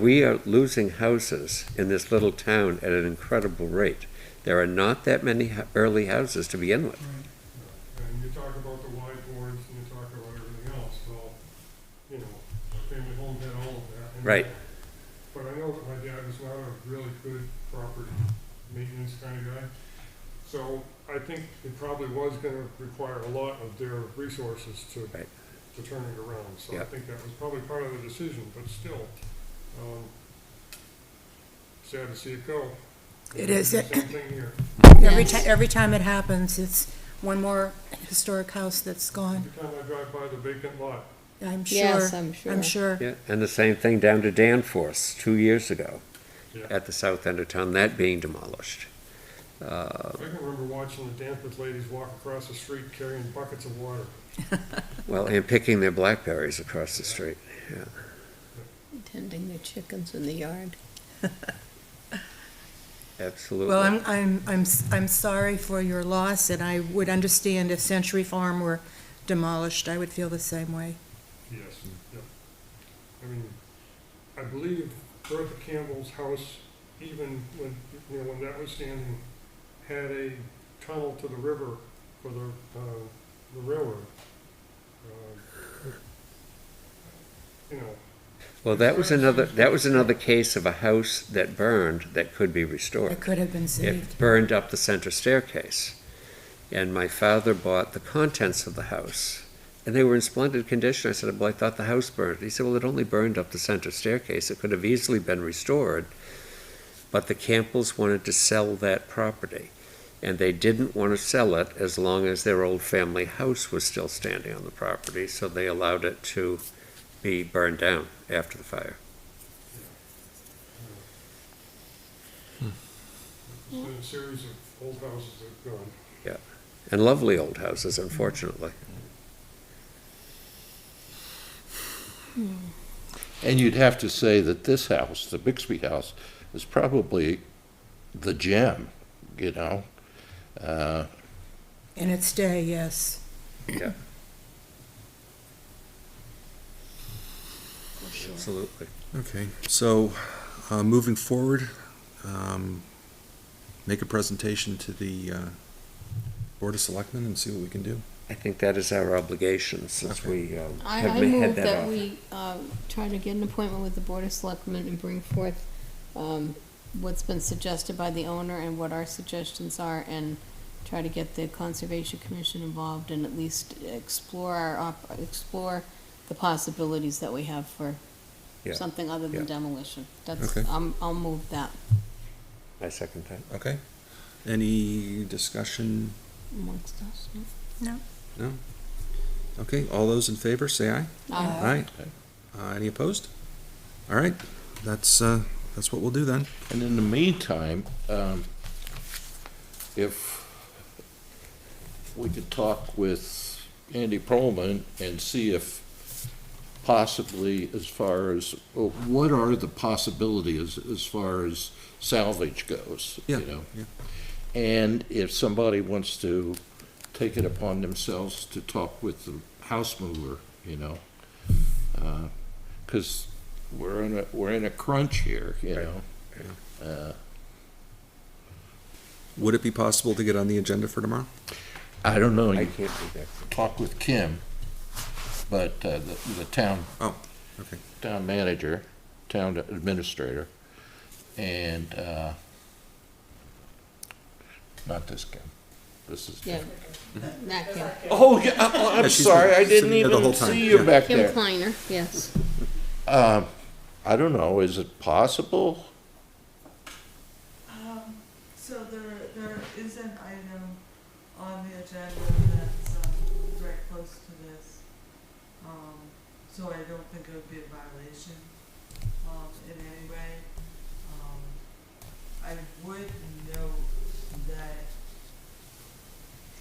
We are losing houses in this little town at an incredible rate. There are not that many hu- early houses to begin with. And you talk about the wide boards and you talk about everything else, so, you know, family home had all of that. and- Right. But I know that my dad was not a really good property maintenance kind of guy. So I think it probably was gonna require a lot of their resources to, Right. to turn it around. So I Yep. think that was probably part of the decision, but still, um, sad to see it go. It is. Same thing here. Every ti- every time it happens, it's one more historic house that's gone, Every time I drive by the vacant lot, I'm sure. Yes, I'm sure. I'm sure. Yeah, and the same thing down to Danforth, two years ago, Yeah. at the south end of town, that being demolished. Uh, I can remember watching the Danforth ladies walk across the street carrying buckets of water. Well, and picking their blackberries across the street, yeah. Tending their chickens in the yard. Absolutely. Well, I'm, I'm, I'm, s- I'm sorry for your loss, and I would understand if Century Farm were demolished, I would feel the same way. Yes. Yep. I mean, I believe Bertha Campbell's house, even when, you know, when that was standing, had a tunnel to the river for the, uh, the railroad. Uh, You know, Well, that was another, that was another case of a house that burned that could be restored. It could have been saved. it burned up the center staircase. And my father bought the contents of the house, and they were in splendid condition. I said, Well, I thought the house burned. He said, Well, it only burned up the center staircase. It could have easily been restored. But the Campbells wanted to sell that property, and they didn't want to sell it as long as their old family house was still standing on the property, so they allowed it to be burned down after the fire. it's been a series of old houses that have gone. And lovely old houses, unfortunately. And you'd have to say that this house, the Bixby House, is probably the gem, you know? Uh, In its day, yes. Yeah. Absolutely. Okay, so, uh, moving forward, um, make a presentation to the, uh, Board of Selectmen and see what we can do. I think that is our obligation since Okay. we um, I, have I ma- had move that that off. we, uh, try to get an appointment with the Board of Selectmen and bring forth, um, what's been suggested by the owner and what our suggestions are and try to get the Conservation Commission involved and at least explore our, op- explore the possibilities that we have for Yeah. something other than Yeah. demolition. That's, Okay. I'm, I'll move that. I second that. Okay. Any discussion? amongst us. no? No? Okay, all those in favor, say aye. Aye. Aye. Uh, any opposed? All right, that's, uh, that's what we'll do then. And in the meantime, um, if we could talk with Andy Perlman and see if possibly as far as, well, what are the possibilities as far as salvage goes, Yeah, you know? yeah. And if somebody wants to take it upon themselves to talk with the house mover, you know? Because we're in a, we're in a crunch here, you Right. know? Uh, Would it be possible to get on the agenda for tomorrow? I don't know, I you can't do that. talk with Kim, but uh, the, the town, Oh, Okay, town manager, town administrator, and, uh, not this Kim, this is. Yeah. Not Kim. Oh, yeah, oh, I'm Yeah, she's sorry, I didn't sitting there the whole even time, see you yeah. back Kim there. Kleiner, yes. Um, I don't know, is it possible? Um, So there, there is an item on the agenda that's, um, very close to this. Um, so I don't think it would be a violation, um, in any way. Um, I would note that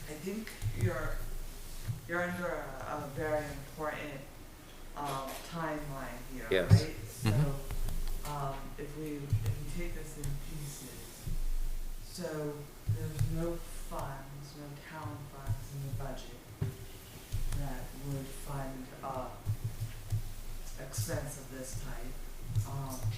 I think you're, you're under a, a very important, um, timeline here, Yes. right? So, um, if we, if we take this in pieces, so there's no funds, no town funds in the budget that would fund, uh, expense of this type. Um,